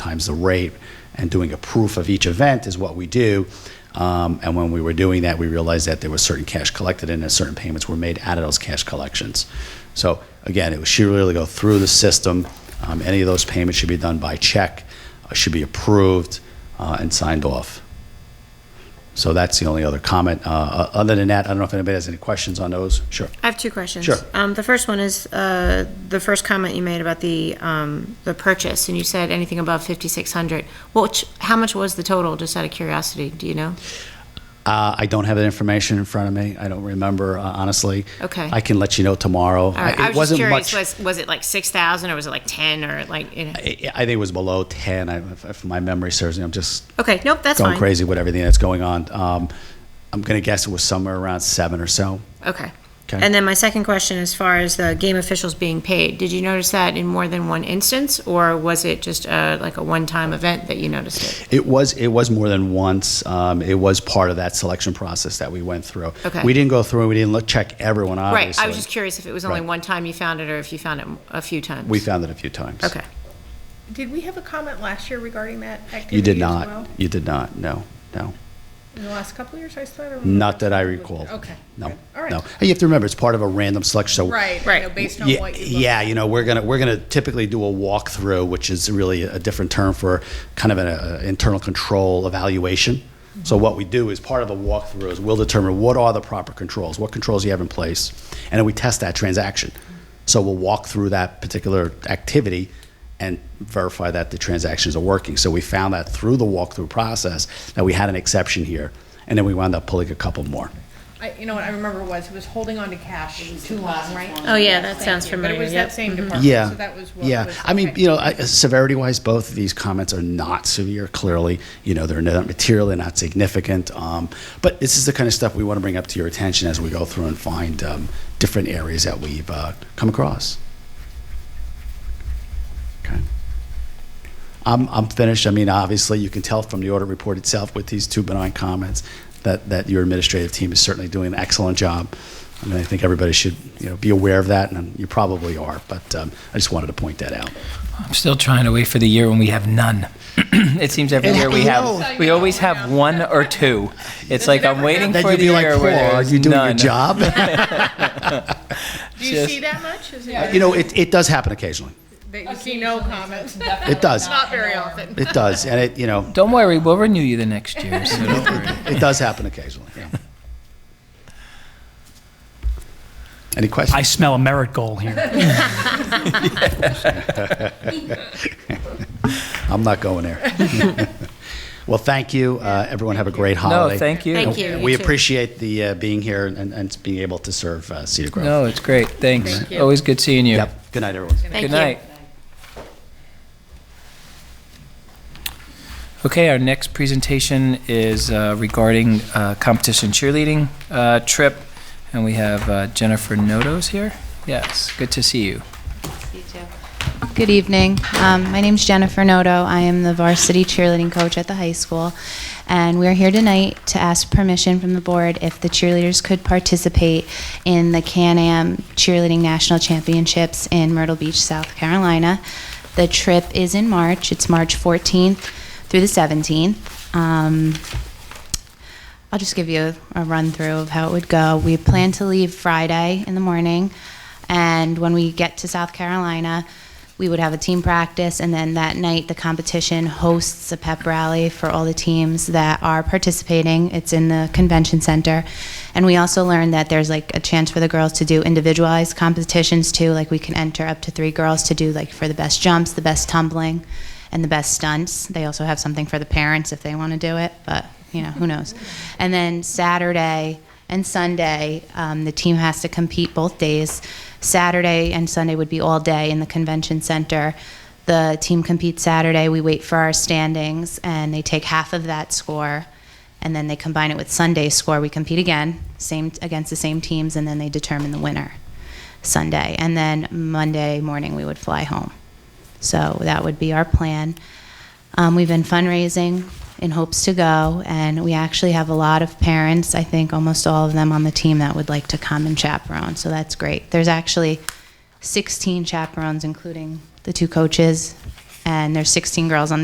times the rate, and doing a proof of each event is what we do. Um, And when we were doing that, we realized that there was certain cash collected and that certain payments were made out of those cash collections. So again, it was- should really go through the system. Um, Any of those payments should be done by check, uh, should be approved uh, and signed off. So that's the only other comment. Uh, o- Other than that, I don't know if anybody has any questions on those? Sure. I have two questions. Sure. Um, the first one is, uh, the first comment you made about the, um, the purchase, and you said anything above fifty-six hundred. Which, how much was the total, just out of curiosity, do you know? Uh, I don't have that information in front of me. I don't remember, uh, honestly. Okay. I can let you know tomorrow. All right, I- It Uh, I was just wasn't curious, much. was, was it like six thousand, or was it like ten, or like, you know? I I think it was below 10, I- if if my memory serves me. I'm just okay, nope, that's going fine. crazy with everything that's going on. Um, I'm going to guess it was somewhere around seven or so. Okay. Okay. And then my second question, as far as the game officials being paid, did you notice that in more than one instance, or was it just, uh, like a one-time event that you noticed it? It was it was more than once. Um, It was part of that selection process that we went through. Okay. We didn't go through, and we didn't look, check everyone, Right, obviously. I was just curious if it was only Right. one time you found it, or if you found it a few times? We found it a few times. Okay. Did we have a comment last year regarding that activity? You did as not. well? You did not, no, no. In the last couple of years, I still don't. Not that I recall. Okay. No, good. All right. no. And You have to remember, it's part of a random selection, so. Right, Right. you know, based on yeah, what you. look- yeah, you know, we're gonna we're gonna typically do a walkthrough, which is really a different term for kind of an uh, internal control evaluation. Mm-hmm. So what we do is part of the walkthrough is we'll determine what are the proper controls, what controls you have in place, and then we test that transaction. So we'll walk through that particular activity and verify that the transactions are working. So we found that through the walkthrough process that we had an exception here, and then we wound up pulling a couple more. I, you know what I remember was, it was holding on to cash too long, right? Oh, yeah, that sounds But it was that same Mm-hmm. department, Yeah. so that was what was. Yeah. I mean, okay. you know, I- severity wise, both of these comments are not severe, clearly. You know, they're not material, they're not significant. Um, but this is the kind of stuff we want to bring up to your attention as we go through and find um, different areas that we've uh, come across. Okay. I'm, I'm finished. I mean, obviously, you can tell from the audit report itself with these two benign comments that, that your administrative team is certainly doing an excellent job. I mean, I think everybody should, you know, be aware of that, and you probably are, but um, I just wanted to point that out. I'm still trying to wait for the year when we have none. it seems every And year we I have, we always have one or two. It's like I'm waiting Then for you'd the be like, year Paul, where are there's you doing your none. job? Do you just- see that much? Is it, You know, it, it does happen occasionally. that you see no comments? It does. Not very often. It does, and it, you know, Don't worry, we'll renew you the next year. So don't worry. it does happen occasionally, yeah. Any questions? I smell a merit goal here. I'm not going there. Well, thank you. Uh, Everyone have a great holiday. No, thank you. Thank you. We You too. appreciate the uh, being here and- and being able to serve uh, Cedar Grove. No, it's great. Thanks. Thank you. Always good seeing you. Yep. Good night, everyone. Thank Good you. night. Okay, our next presentation is uh, regarding uh, competition cheerleading uh, trip, and we have uh, Jennifer Nodos here. Yes, good to see you. Good evening. Um, my name's Jennifer Noto. I am the varsity cheerleading coach at the high school, and we're here tonight to ask permission from the board if the cheerleaders could participate in the Can-Am Cheerleading National Championships in Myrtle Beach, South Carolina. The trip is in March. It's March 14th through the 17th. Um, I'll just give you a run through of how it would go. We plan to leave Friday in the morning, and when we get to South Carolina, we would have a team practice, and then that night the competition hosts a pep rally for all the teams that are participating. It's in the convention center, and we also learned that there's like a chance for the girls to do individualized competitions too. Like we can enter up to three girls to do like for the best jumps, the best tumbling, and the best stunts. They also have something for the parents if they want to do it, but you know, who knows? And then Saturday and Sunday, um, the team has to compete both days. Saturday and Sunday would be all day in the convention center. The team competes Saturday. We wait for our standings, and they take half of that score, and then they combine it with Sunday's score. We compete again, same against the same teams, and then they determine the winner Sunday. And then Monday morning, we would fly home. So that would be our plan. Um, we've been fundraising in hopes to go, and we actually have a lot of parents, I think almost all of them on the team, that would like to come and chaperone. So that's great. There's actually 16 chaperones, including the two coaches, and there's 16 girls on the